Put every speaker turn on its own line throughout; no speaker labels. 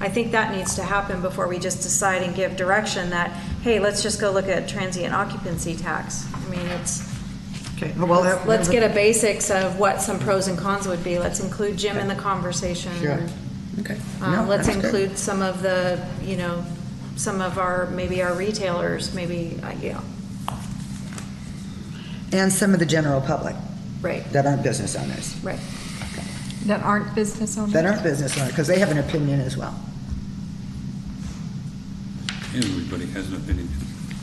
I think that needs to happen before we just decide and give direction that, hey, let's just go look at transient occupancy tax. I mean, it's,
Okay, well,
let's
that-
let's get a basics of what some pros and cons would be. Let's include Jim in the conversation.
Sure.
Okay.
Uh,
No,
Let's
that's good.
include some of the, you know, some of our, maybe our retailers, maybe, uh, yeah,
And some of the general public
right,
that aren't business owners,
right.
That aren't business owners?
that aren't business owners, because they have an opinion as well.
Everybody has an opinion.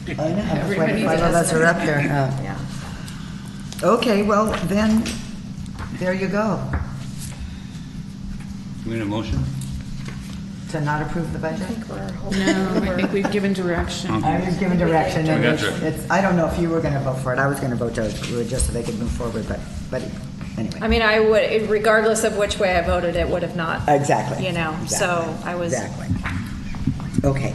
I know, that's why the five of us are up there. huh?
Yeah.
Okay, well, then, there you go.
We need a motion?
To not approve the budget?
No, Um, I think we've given direction.
I was given direction, and
I got
it's,
you.
it's- I don't know if you were gonna vote for it, I was gonna vote to approve it just so they could move forward, but, but
I
anyway.
mean, I would, regardless of which way I voted, it would have not.
Exactly.
You know, so
Exactly.
I was,
Exactly. Okay.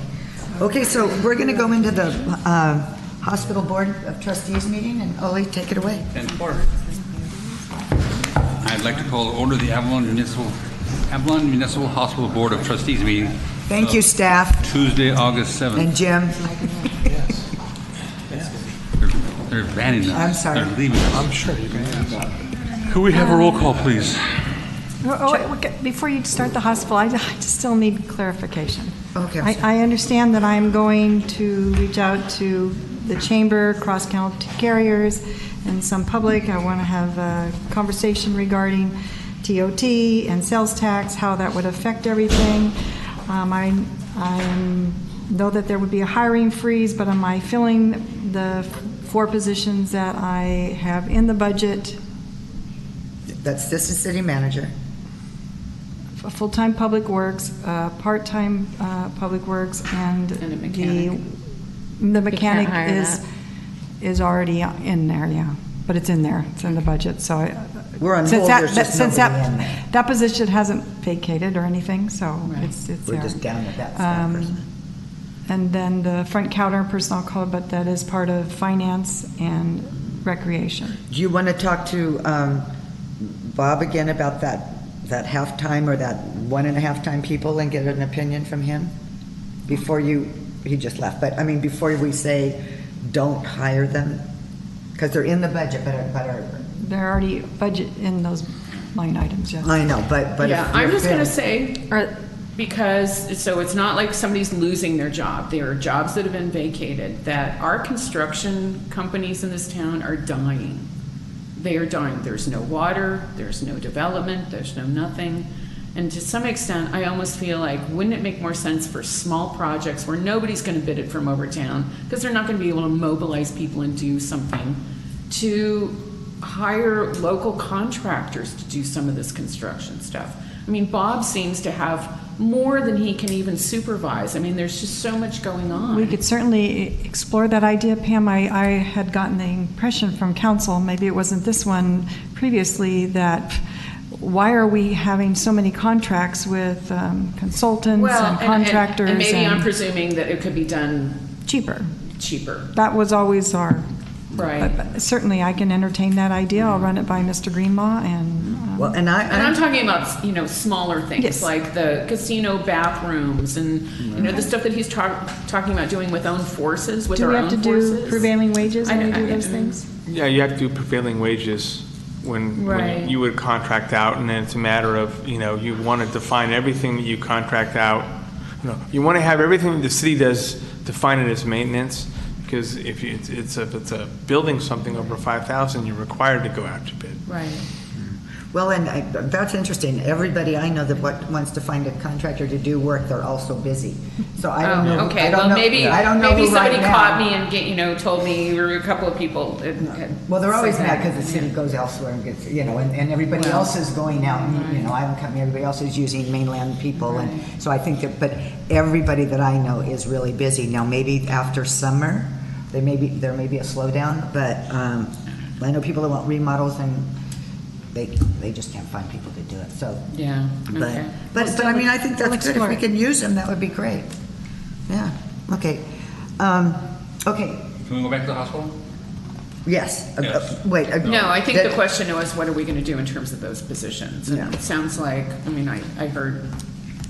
Okay, so we're gonna go into the, uh, Hospital Board of Trustees meeting, and Ollie, take it away.
And order. I'd like to call to order the Avalon Municipal, Avalon Municipal Hospital Board of Trustees meeting
Thank you, staff,
Tuesday, August 7th.
and Jim.
They're- They're abandoning us.
I'm sorry.
They're leaving us. I'm sure you can. Could we have a roll call, please?
Oh, oh, wait, wait, Before you start the hospital, I I just still need clarification.
Okay.
I, I understand that I'm going to reach out to the chamber, cross-county carriers, and some public. I want to have a conversation regarding TOT and sales tax, how that would affect everything. Um, I, I know that there would be a hiring freeze, but am I filling the four positions that I have in the budget
That's Assistant City Manager.
a full-time public works, uh, part-time uh, public works, and
And a
the,
mechanic.
the
can't
mechanic
hire
is, is already in there, yeah. But it's in there, it's in the budget, so. I-
We're on
since
hold,
that-
there's
that-
just
since
nobody
that-
in there.
That position hasn't vacated or anything, so it's, it's
We're
there.
just down at that staff
Um,
person.
And then the front counter personnel call, but that is part of finance and recreation.
Do you want to talk to um, Bob again about that, that halftime or that one and a half time people and get an opinion from him? Before you, he just left, but I mean, before we say, don't hire them? Because they're in the budget, but, are- but are,
They're already budget in those line items, yes.
I know, but, but. if
Yeah, I'm
you're
just gonna
filled-
say,
Or-
because, so it's not like somebody's losing their job. There are jobs that have been vacated, that our construction companies in this town are dying. They are dying. There's no water, there's no development, there's no nothing. And to some extent, I almost feel like, wouldn't it make more sense for small projects where nobody's gonna bid it from over town? Because they're not gonna be able to mobilize people and do something, to hire local contractors to do some of this construction stuff. I mean, Bob seems to have more than he can even supervise. I mean, there's just so much going on.
We could certainly explore that idea, Pam. I, I had gotten the impression from council, maybe it wasn't this one previously, that why are we having so many contracts with um, consultants
Well,
and contractors?
And maybe I'm
and
presuming that it could be done
Cheaper.
cheaper,
That was always our,
right?
but- but certainly I can entertain that idea. I'll run it by Mr. Greenlaw and. um,
Well, and
And I'm
I,
talking about, you know, smaller things,
Yes.
like the casino bathrooms and, you know, the stuff that he's talk- talking about doing with own forces, with
Do
our
we
own
have to
forces.
do prevailing wages
I-
when we
I-
do those things?
Yeah, you have to do prevailing wages when,
Right.
when you would contract out, and then it's a matter of, you know, you want to define everything that you contract out. You know, You want to have everything that the city does defined as maintenance, because if you, it's, it's, a- if it's a building something over five thousand, you're required to go out to bid.
Right.
well, and I- that's interesting. Everybody I know that what- wants to find a contractor to do work, they're also busy. So I don't know,
Oh,
I
okay,
don't
well,
know,
maybe,
I don't know
maybe
who right
somebody
now-
caught me and get, you know, told me, or a couple of people. that had
Well, they're always
said
mad
that.
because the city goes elsewhere and gets, you know, and, and everybody else is going out, and, you know, I'm coming, everybody else is using mainland people, and so I think that, but everybody that I know is really busy. Now, maybe after summer, they may be, there may be a slowdown, but, um, I know people that want remodels and they, they just can't find people to do it, so.
Yeah,
But,
okay.
but, but I mean, I think that's good. If
explore
we
it.
can use them, that would be great. Yeah, okay. Um, okay,
Can we go back to the hospital?
yes, Uh, uh,
Yes.
wait. uh,
No, I think the
that-
question was, what are we gonna do in terms of those positions? And
Yeah.
it sounds like, I mean, I, I heard